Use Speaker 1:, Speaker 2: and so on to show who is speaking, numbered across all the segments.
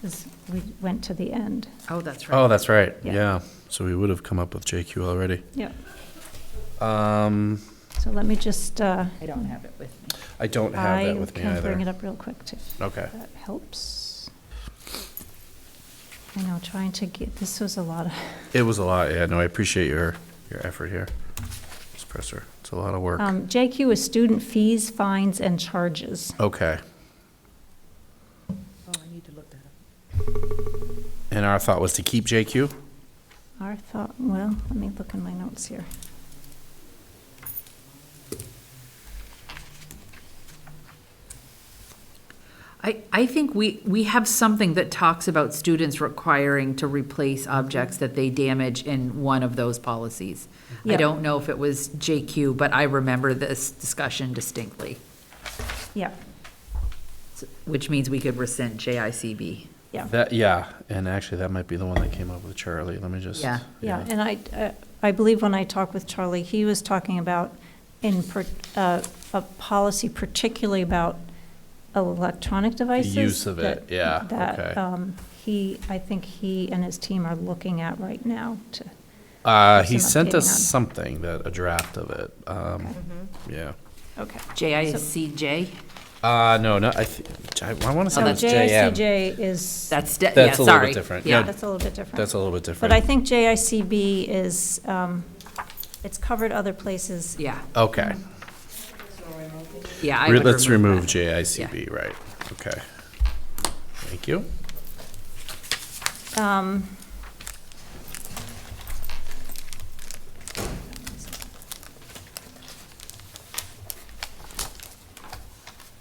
Speaker 1: because we went to the end.
Speaker 2: Oh, that's right.
Speaker 3: Oh, that's right,
Speaker 1: Yeah.
Speaker 3: yeah. So we would have come up with JQ already.
Speaker 1: Yep.
Speaker 3: Um,
Speaker 1: So let me just, uh,
Speaker 2: I don't have it with me.
Speaker 3: I don't have
Speaker 1: I
Speaker 3: that with me
Speaker 1: can bring it
Speaker 3: either.
Speaker 1: up real quick too.
Speaker 3: Okay.
Speaker 1: That helps. I know, trying to get, this was a lot of,
Speaker 3: It was a lot, yeah, no, I appreciate your, your effort here, Ms. Presser. It's a lot of work.
Speaker 1: um, JQ is student fees, fines, and charges.
Speaker 3: Okay,
Speaker 2: Oh, I need to look that up.
Speaker 3: and our thought was to keep JQ?
Speaker 1: Our thought, well, let me look in my notes here.
Speaker 2: I, I think we, we have something that talks about students requiring to replace objects that they damage in one of those policies. I
Speaker 1: Yeah.
Speaker 2: don't know if it was JQ, but I remember this discussion distinctly,
Speaker 1: Yeah,
Speaker 2: s- which means we could rescind JICB.
Speaker 1: yeah.
Speaker 3: That, yeah, and actually, that might be the one that came up with Charlie, let me just.
Speaker 2: Yeah.
Speaker 1: Yeah, and I, uh, I believe when I talked with Charlie, he was talking about in, per- uh, a policy particularly about electronic devices.
Speaker 3: use of it,
Speaker 1: that-
Speaker 3: yeah,
Speaker 1: That
Speaker 3: okay.
Speaker 1: um, he, I think he and his team are looking at right now to,
Speaker 3: Uh, he
Speaker 1: Some
Speaker 3: sent us
Speaker 1: updating on-
Speaker 3: something that, a draft of it, um,
Speaker 1: Okay.
Speaker 3: yeah.
Speaker 1: okay.
Speaker 2: JICJ,
Speaker 3: Uh, no, no, I, thi- I wanna
Speaker 1: So
Speaker 3: say it was JM.
Speaker 1: JICJ is,
Speaker 2: that's, de- yeah,
Speaker 3: That's a little bit
Speaker 2: sorry.
Speaker 3: different.
Speaker 2: Yeah,
Speaker 1: that's a little bit different.
Speaker 3: That's a little bit different.
Speaker 1: But I think JICB is, um, it's covered other places.
Speaker 2: yeah,
Speaker 3: Okay,
Speaker 2: yeah. I
Speaker 3: Re-
Speaker 2: would
Speaker 3: let's remove
Speaker 2: that.
Speaker 3: JICB, right, okay. Thank you.
Speaker 1: Um,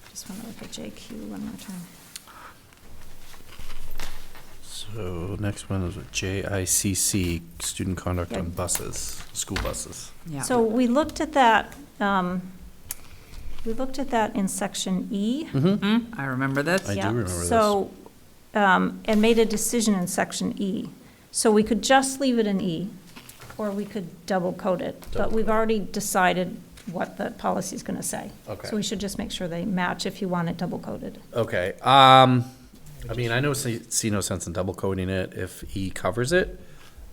Speaker 1: Just want to look at JQ one more time.
Speaker 3: So next one is JICC, student conduct on
Speaker 1: Yeah.
Speaker 3: buses, school buses.
Speaker 2: Yeah.
Speaker 1: So we looked at that, um, we looked at that in section E.
Speaker 3: Mm-hmm.
Speaker 2: Mhm, I remember this.
Speaker 3: I do
Speaker 1: Yeah,
Speaker 3: remember this.
Speaker 1: So, um, and made a decision in section E. So we could just leave it in E, or we could double code it. But
Speaker 3: Double
Speaker 1: we've
Speaker 3: code it.
Speaker 1: already decided what the policy's going to say.
Speaker 3: Okay.
Speaker 1: So we should just make sure they match if you want it double coded.
Speaker 3: Okay, um, I mean, I know, see, see no sense in double coding it if E covers it.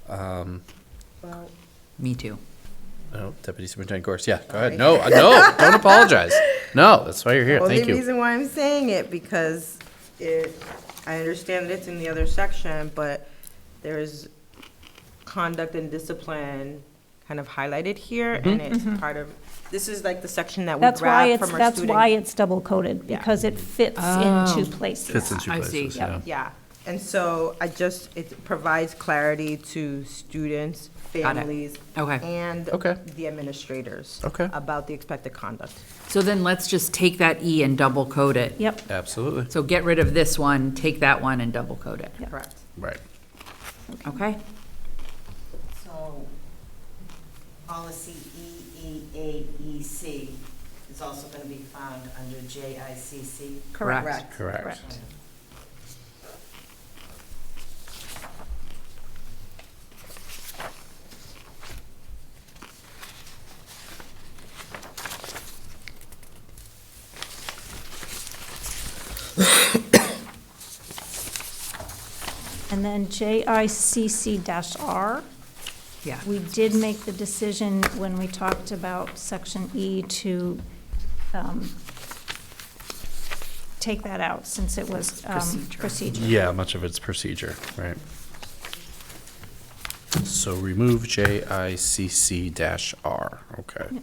Speaker 3: Um,
Speaker 2: Me too.
Speaker 3: no, Deputy Superintendent Gorse, yeah, go ahead. No, uh, no, don't apologize. No, that's why you're here, thank
Speaker 4: Well, the
Speaker 3: you.
Speaker 4: reason why I'm saying it, because it, I understand that it's in the other section, but there's conduct and discipline kind of highlighted here,
Speaker 3: Mm-hmm.
Speaker 4: and it's part of, this is like the section that we grab
Speaker 1: Mm-hmm. That's
Speaker 4: from our
Speaker 1: why it's,
Speaker 4: student.
Speaker 1: that's why it's double coded,
Speaker 4: Yeah.
Speaker 1: because it fits in two places.
Speaker 3: Oh. Fits in two
Speaker 2: I see.
Speaker 3: places, yeah.
Speaker 4: Yeah, and so I just, it provides clarity to students,
Speaker 2: Got it.
Speaker 4: families,
Speaker 2: Okay.
Speaker 4: and
Speaker 3: Okay.
Speaker 4: the administrators.
Speaker 3: Okay.
Speaker 4: About the expected conduct.
Speaker 2: So then let's just take that E and double code it.
Speaker 1: Yep,
Speaker 3: Absolutely,
Speaker 2: So get rid of this one, take that one and double code it,
Speaker 4: Correct.
Speaker 3: right.
Speaker 2: okay?
Speaker 5: So, policy E, EEAEC E, is also going to be found under JICC?
Speaker 1: correct.
Speaker 2: Correct.
Speaker 3: Correct.
Speaker 1: And then JICC dash R,
Speaker 2: Yeah,
Speaker 1: we did make the decision when we talked about section E to um, take that out, since it was um,
Speaker 2: Procedure.
Speaker 1: procedure.
Speaker 3: Yeah, much of it's procedure, right. So remove JICC dash R, okay.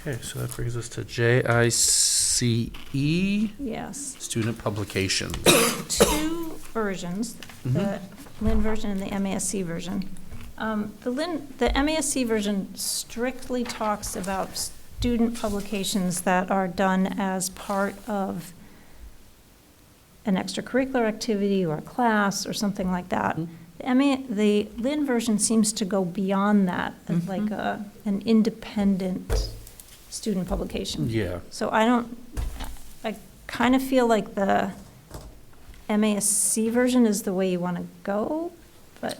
Speaker 3: Okay, so that brings us to JICE,
Speaker 1: Yes.
Speaker 3: E, student publications.
Speaker 1: two versions, the Lynn version and the MASC version. Um, The Lynn, the MASC version strictly talks about student publications that are done as part of an extracurricular activity or a class or something like that. The MA, the Lynn version seems to go beyond that, as like a, an independent student publication.
Speaker 3: Yeah,
Speaker 1: So I don't, I kind of feel like the MASC version is the way you want to go, but